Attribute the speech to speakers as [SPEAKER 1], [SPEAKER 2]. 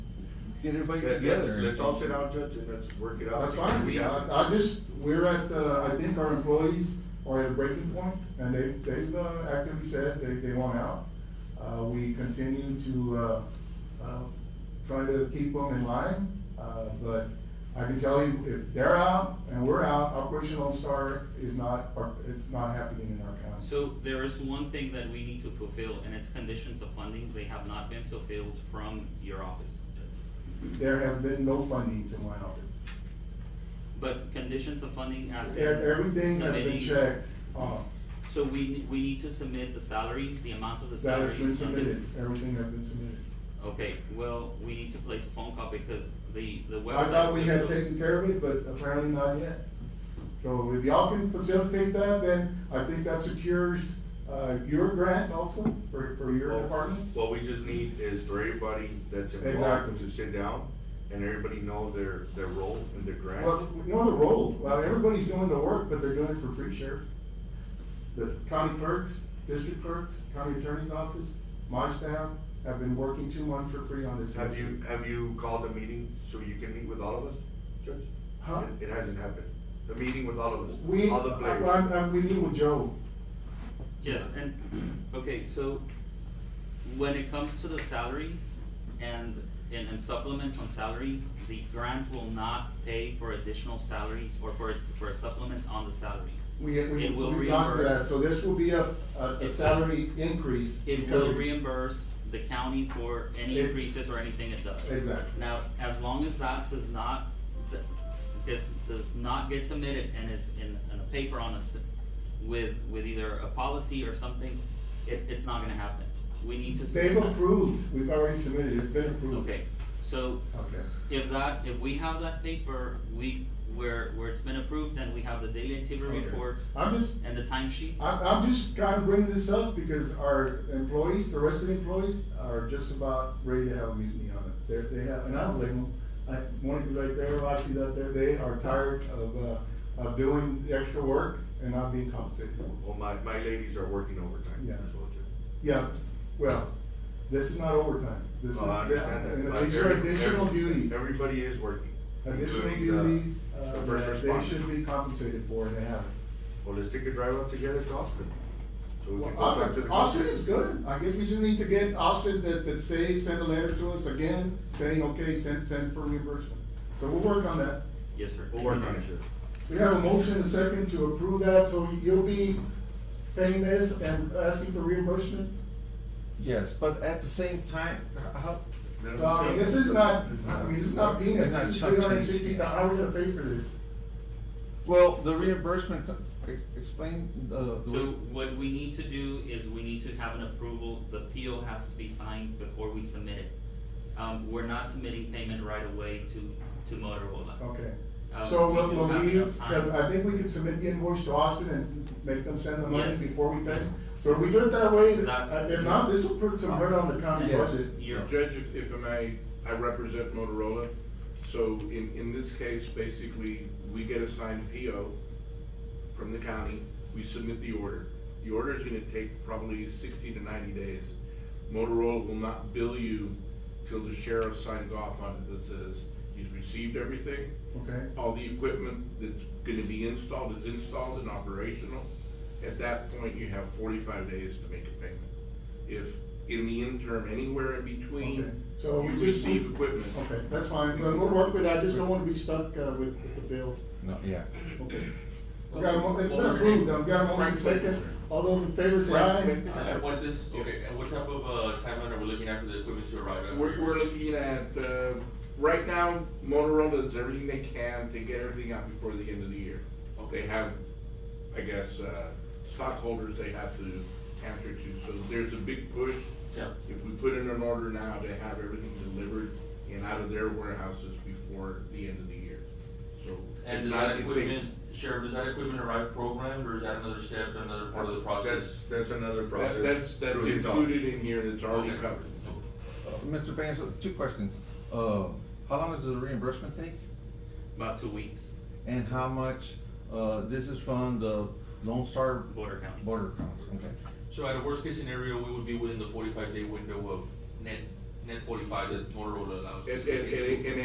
[SPEAKER 1] get everybody
[SPEAKER 2] That, that's,
[SPEAKER 1] together.
[SPEAKER 2] let's all sit out, judge, and let's work it out.
[SPEAKER 3] That's fine,
[SPEAKER 2] We have-
[SPEAKER 3] I, I just, we're at, uh, I think our employees are at a breaking point, and they, they've uh, actively said they, they want out. Uh, we continue to, uh, uh, try to keep them in line, uh, but I can tell you, if they're out and we're out, Operation Lone Star is not, it's not happening in our county.
[SPEAKER 4] So there is one thing that we need to fulfill, and it's conditions of funding. They have not been fulfilled from your office, Judge.
[SPEAKER 3] There has been no funding to my office.
[SPEAKER 4] But conditions of funding as.
[SPEAKER 3] E-
[SPEAKER 4] in
[SPEAKER 3] Everything has been
[SPEAKER 4] submitting-
[SPEAKER 3] checked, uh,
[SPEAKER 4] So we, we need to submit the salaries, the amount of the
[SPEAKER 3] that
[SPEAKER 4] salaries.
[SPEAKER 3] has been submitted, everything has been submitted.
[SPEAKER 4] Okay, well, we need to place a phone call because the, the website.
[SPEAKER 3] I thought we had taken care of it, but apparently not yet. So if y'all can facilitate that, then I think that secures, uh, your grant also for, for your
[SPEAKER 2] Well,
[SPEAKER 3] department.
[SPEAKER 2] What we just need is for everybody that's
[SPEAKER 3] Exactly.
[SPEAKER 2] involved to sit down and everybody know their, their role in the grant.
[SPEAKER 3] Well, you know the role, well, everybody's doing the work, but they're doing it for free, Sheriff. The county clerks, district clerks, county attorney's office, my staff have been working two months for free on this.
[SPEAKER 2] Have you, have you called a meeting so you can meet with all of us, Judge?
[SPEAKER 3] Huh?
[SPEAKER 2] It- It hasn't happened. The meeting with all of us,
[SPEAKER 3] We,
[SPEAKER 2] all the
[SPEAKER 3] I,
[SPEAKER 2] players.
[SPEAKER 3] I, I- we meet with Joe.
[SPEAKER 4] Yes, and, okay, so when it comes to the salaries and, and and supplements on salaries, the grant will not pay for additional salaries or for, for a supplement on the salary.
[SPEAKER 3] We, we,
[SPEAKER 4] It will
[SPEAKER 3] we've gone to that,
[SPEAKER 4] reimburse.
[SPEAKER 3] so this will be a, a a
[SPEAKER 4] It-
[SPEAKER 3] salary increase.
[SPEAKER 4] It will reimburse the county for any
[SPEAKER 3] It's-
[SPEAKER 4] increases or anything it does.
[SPEAKER 3] Exactly.
[SPEAKER 4] Now, as long as that does not, that, that does not get submitted and is in, in a paper on us with, with either a policy or something, it, it's not gonna happen. We need to.
[SPEAKER 3] They've
[SPEAKER 4] submit that.
[SPEAKER 3] approved, we've already submitted, it's been approved.
[SPEAKER 4] Okay, so
[SPEAKER 3] Okay.
[SPEAKER 4] if that, if we have that paper, we, where, where it's been approved, then we have the daily activity
[SPEAKER 3] Okay.
[SPEAKER 4] reports
[SPEAKER 3] I'm just,
[SPEAKER 4] and the timesheets.
[SPEAKER 2] Ah.
[SPEAKER 3] I'm, I'm just trying to bring this up because our employees, the rest of the employees are just about ready to have a mutiny on it. They're, they have, and I don't blame them. I, Monica's right there, Roxy's out there, they are tired of, uh, of doing the extra work and not being compensated.
[SPEAKER 2] Well, my, my ladies are working overtime
[SPEAKER 3] Yeah.
[SPEAKER 2] as well, Judge.
[SPEAKER 3] Yeah, well, this is not overtime. This is,
[SPEAKER 2] Well, I understand that.
[SPEAKER 3] and
[SPEAKER 2] but
[SPEAKER 3] these are
[SPEAKER 2] every-
[SPEAKER 3] additional
[SPEAKER 2] every-
[SPEAKER 3] duties.
[SPEAKER 2] Everybody is working.
[SPEAKER 3] Additional
[SPEAKER 2] including the-
[SPEAKER 3] duties, uh,
[SPEAKER 2] The first
[SPEAKER 3] that they should
[SPEAKER 2] responders.
[SPEAKER 3] be compensated for and they haven't.
[SPEAKER 2] Well, let's take a drive up together to Austin. So we
[SPEAKER 3] Well,
[SPEAKER 2] can go back to
[SPEAKER 3] Austin,
[SPEAKER 2] the.
[SPEAKER 3] Austin is good. I guess we just need to get Austin to, to say, send a letter to us again, saying, okay, send, send for reimbursement. So we'll work on that.
[SPEAKER 4] Yes, sir.
[SPEAKER 2] We'll
[SPEAKER 4] Thank
[SPEAKER 2] work
[SPEAKER 4] you.
[SPEAKER 2] on it, Judge.
[SPEAKER 3] We have a motion and a second to approve that, so you'll be paying this and asking for reimbursement?
[SPEAKER 1] Yes, but at the same time, how,
[SPEAKER 2] Let
[SPEAKER 3] So, I mean, this is not, I mean, this is not peanuts.
[SPEAKER 1] It's not
[SPEAKER 3] This is
[SPEAKER 1] chump
[SPEAKER 3] three
[SPEAKER 1] change.
[SPEAKER 3] hundred and sixty, how are we gonna pay for this?
[SPEAKER 1] well, the reimbursement, e- explain the. the-
[SPEAKER 4] So what we need to do is we need to have an approval, the PO has to be signed before we submit it. Um, we're not submitting payment right away to, to Motorola.
[SPEAKER 3] Okay.
[SPEAKER 4] Um,
[SPEAKER 3] So
[SPEAKER 4] we
[SPEAKER 3] what,
[SPEAKER 4] do
[SPEAKER 3] what
[SPEAKER 4] have
[SPEAKER 3] we,
[SPEAKER 4] enough time.
[SPEAKER 3] I think we can submit the invoice to Austin and make them send the money
[SPEAKER 4] Yes.
[SPEAKER 3] before we pay. So if we do it that way,
[SPEAKER 4] That's-
[SPEAKER 3] uh, if not, this will put some hurt on the
[SPEAKER 2] Oh.
[SPEAKER 3] county
[SPEAKER 1] Yes.
[SPEAKER 3] budget.
[SPEAKER 4] You're-
[SPEAKER 5] Judge, if, if I may, I represent Motorola, so in, in this case, basically, we get a signed PO from the county, we submit the order. The order is gonna take probably sixty to ninety days. Motorola will not bill you till the sheriff signs off on it that says he's received everything,
[SPEAKER 3] Okay,
[SPEAKER 5] all the equipment that's gonna be installed is installed and operational. At that point, you have forty-five days to make a payment. If in the interim, anywhere in
[SPEAKER 3] okay.
[SPEAKER 5] between,
[SPEAKER 3] So
[SPEAKER 5] you
[SPEAKER 3] we just.
[SPEAKER 5] receive equipment.
[SPEAKER 3] Okay, that's fine. We'll, we'll work with that. I just don't wanna be stuck, uh, with, with the bill.
[SPEAKER 1] No, yeah.
[SPEAKER 3] Okay. We got a mo, it's been
[SPEAKER 6] What was your
[SPEAKER 3] approved.
[SPEAKER 6] name?
[SPEAKER 3] We got a motion
[SPEAKER 6] Frank.
[SPEAKER 3] second. All those in favor say aye.
[SPEAKER 6] I have one this, okay, and what type of, uh, timeline are we looking at for the equipment to arrive? at?
[SPEAKER 5] Uh, We're, we're looking at, uh, right now Motorola does everything they can to get everything out before the end of the year. They have, I guess, uh, stockholders they have to answer to, so there's a big push
[SPEAKER 6] Yeah,
[SPEAKER 5] If we put in an order now to have everything delivered and out of their warehouses before the end of the year, so.
[SPEAKER 6] and
[SPEAKER 5] if
[SPEAKER 6] does
[SPEAKER 5] not,
[SPEAKER 6] that
[SPEAKER 5] if they-
[SPEAKER 6] equipment, Sheriff, does that equipment arrive programmed, or is that another step, another part of the
[SPEAKER 2] That's,
[SPEAKER 6] process?
[SPEAKER 2] that's another process.
[SPEAKER 5] that- That's, that's
[SPEAKER 2] through his
[SPEAKER 5] included
[SPEAKER 2] office.
[SPEAKER 5] in here and it's already
[SPEAKER 6] Okay.
[SPEAKER 5] covered.
[SPEAKER 1] Uh, Mr. Vance, uh, two questions. Uh, how long does the reimbursement take?
[SPEAKER 4] About two weeks,
[SPEAKER 1] And how much, uh, this is from the Lone Star?
[SPEAKER 4] border counties.
[SPEAKER 1] Border counties, okay.
[SPEAKER 6] So at a worst case scenario, we would be within the forty-five day window of net, net forty-five that Motorola allows.
[SPEAKER 5] And, and,